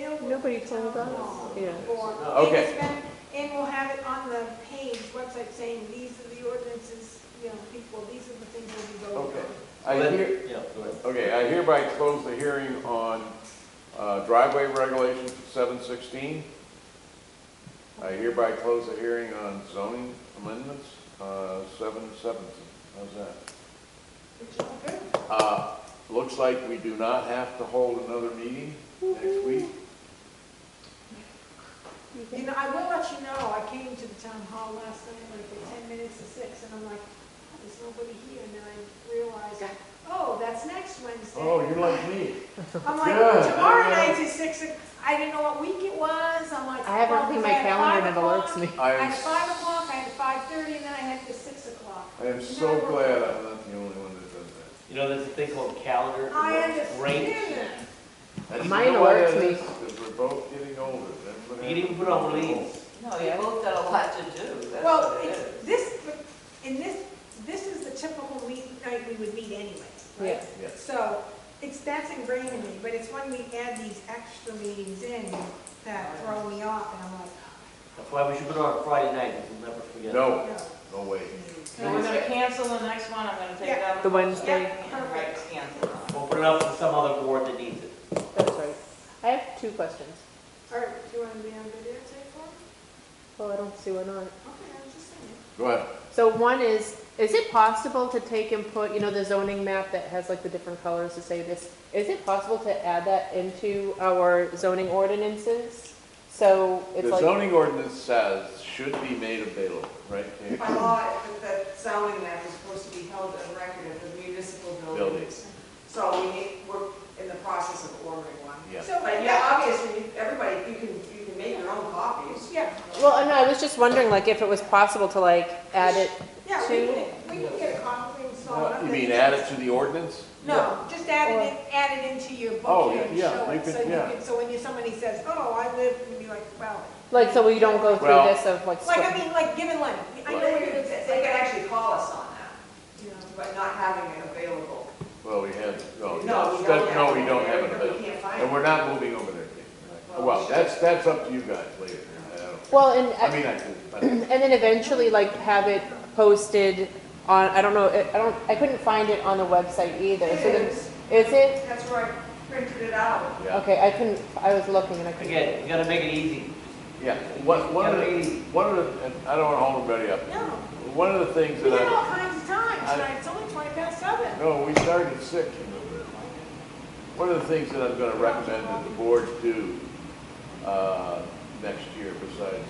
Nobody told us, yeah. form. Okay. And it's been- And we'll have it on the page, website saying, these are the ordinances, you know, people, these are the things that we go over. Okay. I hear, Yeah, go ahead. okay, I hereby close the hearing on uh, driveway regulations seven sixteen. I hereby close the hearing on zoning amendments, uh, seven seventeen. How's that? Which is good. Uh, looks like we do not have to hold another meeting next week. You know, I will let you know, I came to the town hall last night, like at ten minutes to six, and I'm like, "Oh, there's nobody here, and then I realized, oh, that's next Wednesday. Oh, you're like me. I'm like, Yeah. tomorrow night is six, o- I didn't know what week it was, I'm like. I haven't "Oh, cleaned my 'cause I had calendar five and it alerts o'clock, me. I I had five am, o'clock, I had five thirty, and then I had the six o'clock. I am so glad I'm not the only one that does that. You know, there's a thing called calendar. I ranks. understand that. And you Mine know why alerts that me. is? 'Cause we're both getting older. That's what You can even happens. put on leaves. No, you both got a lot to do, that's Well, what it it's, is. this, and this, this is the typical meet, night we would meet anyway, right? Yeah. Yeah. So, it's, that's ingrained in me, but it's when we add these extra meetings in that throw me off, and I'm like, That's why we should put it on Friday night, because we'll never forget. No, "Oh, no. no way. So we're gonna cancel the next one, I'm gonna take it out. The Wednesday. And write cancel on it. We'll put it up to some other board that needs it. That's right. I have two questions. All right, do you want to be on video tape for me? Well, Oh, I don't see why not. Okay, I was just saying. Go ahead. So one is, is it possible to take and put, you know, the zoning map that has like the different colors to say this? Is it possible to add that into our zoning ordinances? So it's The like, zoning ordinance says should be made available, right? Kate? By law, that zoning map is supposed to be held on record of the municipal buildings. Buildings. So we need, we're in the process of ordering one. Yeah. So, But yeah, yeah, obviously, you- everybody, you can, you can make your own copies. yeah, well, I know, I was just wondering like if it was possible to like add it, yeah, we Two. can, we can get a copy and install it. Uh, You mean add it to the ordinance? No, just add it, in- add it into your book Oh, here and yeah, show you it, could- so you yeah. can, so when you, somebody says, oh, I live, and be like, well, like, so we don't go through Well- this of like. like, squ- I mean, like, given like, I know what They you're could- gonna say, they like, can I, actually call us on that, you know. but not having it available. Well, we have, no, No, we Oh, that- don't no, have we it don't have it there, but we available. can't find And we're not moving over there. Kate. Well, we Well, should. that's, that's up to you guys later. I don't- Well, and. I mean, I could, but and then eventually like have it posted on i don't know i I don't i couldn't find it on the website either so then, It is. is it That's where I printed it out. Yeah. okay i couldn't i was looking and i couldn't Again, you gotta make it easy. Yeah, one, one of the, one of the, and I don't want to hold everybody up. No, One of the things we that had all I, kinds of times, I- tonight. it's only twenty past seven. no, we started at six. One of the things that I'm going to recommend that the board do uh, next year besides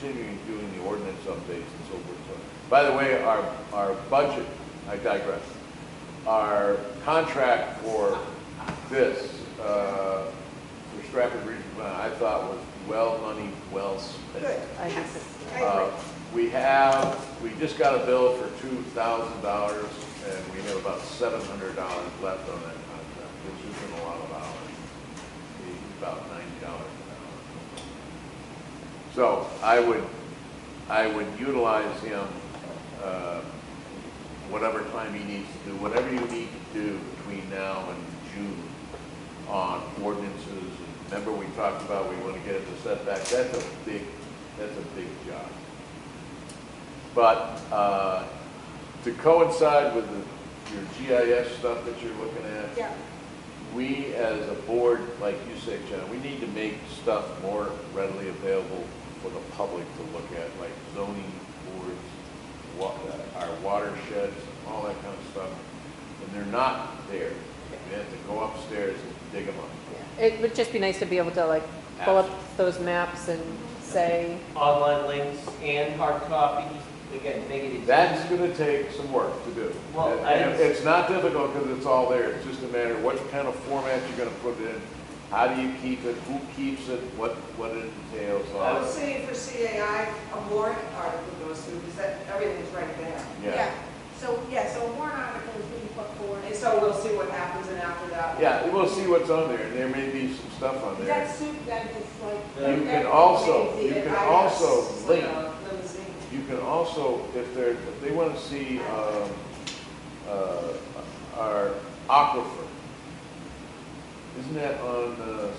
continuing doing the ordinance updates and so forth. and so on. By the way, our, our budget, I digress, our contract for this, uh, for Stratford Regional Plan, I thought was well money, well spent. Good, I yes, think I Uh, agree. We have, we just got a bill for two thousand dollars, and we have about seven hundred dollars left on that contract, which isn't a lot of hours. It's About ninety dollars an hour. So I would, I would utilize him, uh, whatever time he needs to do, whatever you need to do between now and June on ordinances. Remember, we talked about we want to get it to setback, that's a big, that's a big job. But uh, to coincide with the- your GIS stuff that you're looking at, Yeah, we as a board, like you say, John, we need to make stuff more readily available for the public to look at, like zoning boards, wa- uh, our watersheds, all that kind of stuff. And they're not there. You have to go upstairs and dig them up. it would just be nice to be able to like pull up those maps and say Online links and hard copies, again, make it easy. That's gonna take some work to do. Well, And- I- and It's not difficult because it's all there. It's just a matter of what kind of format you're gonna put it in, how do you keep it, who keeps it, what, what it entails, I all would that. say for CAI, a warrant article goes through, because that, everything's right there. Yeah. yeah, so, yeah, so warrant article is being put forward. And so we'll see what happens, and after that. Yeah, we'll see what's on there. There may be some stuff on Is there. that suit, that is like. You that- can also- that- you can I- also it's like link. a limousine. You can also, if they're, if they wanna see, um, uh, our aquifer, isn't that on, uh,